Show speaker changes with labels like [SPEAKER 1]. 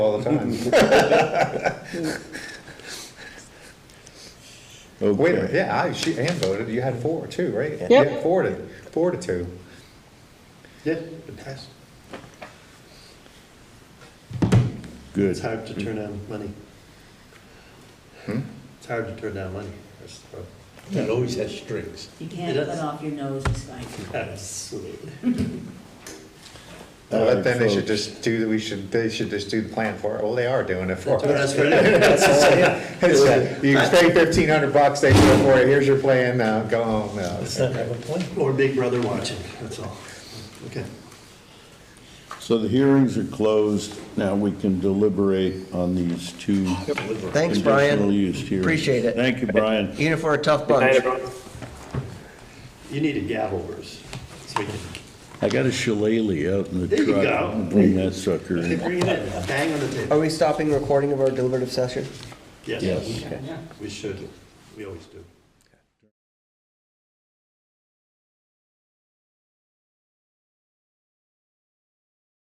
[SPEAKER 1] all the time. Wait, a minute, yeah, I, she, Ann voted, you had four, two, right?
[SPEAKER 2] Yep.
[SPEAKER 1] Yeah, Four to, four to two.
[SPEAKER 3] Yeah, it passed. It's
[SPEAKER 2] Good.
[SPEAKER 3] hard to turn down money. It's hard to turn down money. That's the problem.
[SPEAKER 4] It always has strings.
[SPEAKER 5] You can't
[SPEAKER 3] It
[SPEAKER 5] cut
[SPEAKER 3] is.
[SPEAKER 5] off your nose and spine.
[SPEAKER 3] Absolutely.
[SPEAKER 2] All right,
[SPEAKER 1] But then they should
[SPEAKER 2] folks.
[SPEAKER 1] just do, the- we should, they should just do the plan for it, well, they are doing it for
[SPEAKER 3] But
[SPEAKER 1] us.
[SPEAKER 3] that's for you.
[SPEAKER 1] It's like, You pay fifteen hundred bucks, they do it for you, here's your plan, now go home, now.
[SPEAKER 4] Let's not have a plan.
[SPEAKER 3] Or Big Brother watching, that's all. Okay.
[SPEAKER 2] So the hearings are closed. Now we can deliberate on these two.
[SPEAKER 6] Thanks,
[SPEAKER 2] conditional
[SPEAKER 6] Brian.
[SPEAKER 2] use hearings.
[SPEAKER 6] Appreciate it.
[SPEAKER 2] Thank you, Brian.
[SPEAKER 6] Even for a tough bunch.
[SPEAKER 3] You need a gavel verse. So we can
[SPEAKER 2] I got a shillelagh out in the
[SPEAKER 3] There you
[SPEAKER 2] truck.
[SPEAKER 3] go.
[SPEAKER 2] I'll Bring that sucker
[SPEAKER 3] Okay,
[SPEAKER 2] in.
[SPEAKER 3] bring it in, bang on the table.
[SPEAKER 6] Are we stopping recording of our deliberative session?
[SPEAKER 3] Yes.
[SPEAKER 2] Yes.
[SPEAKER 3] We should. We always do.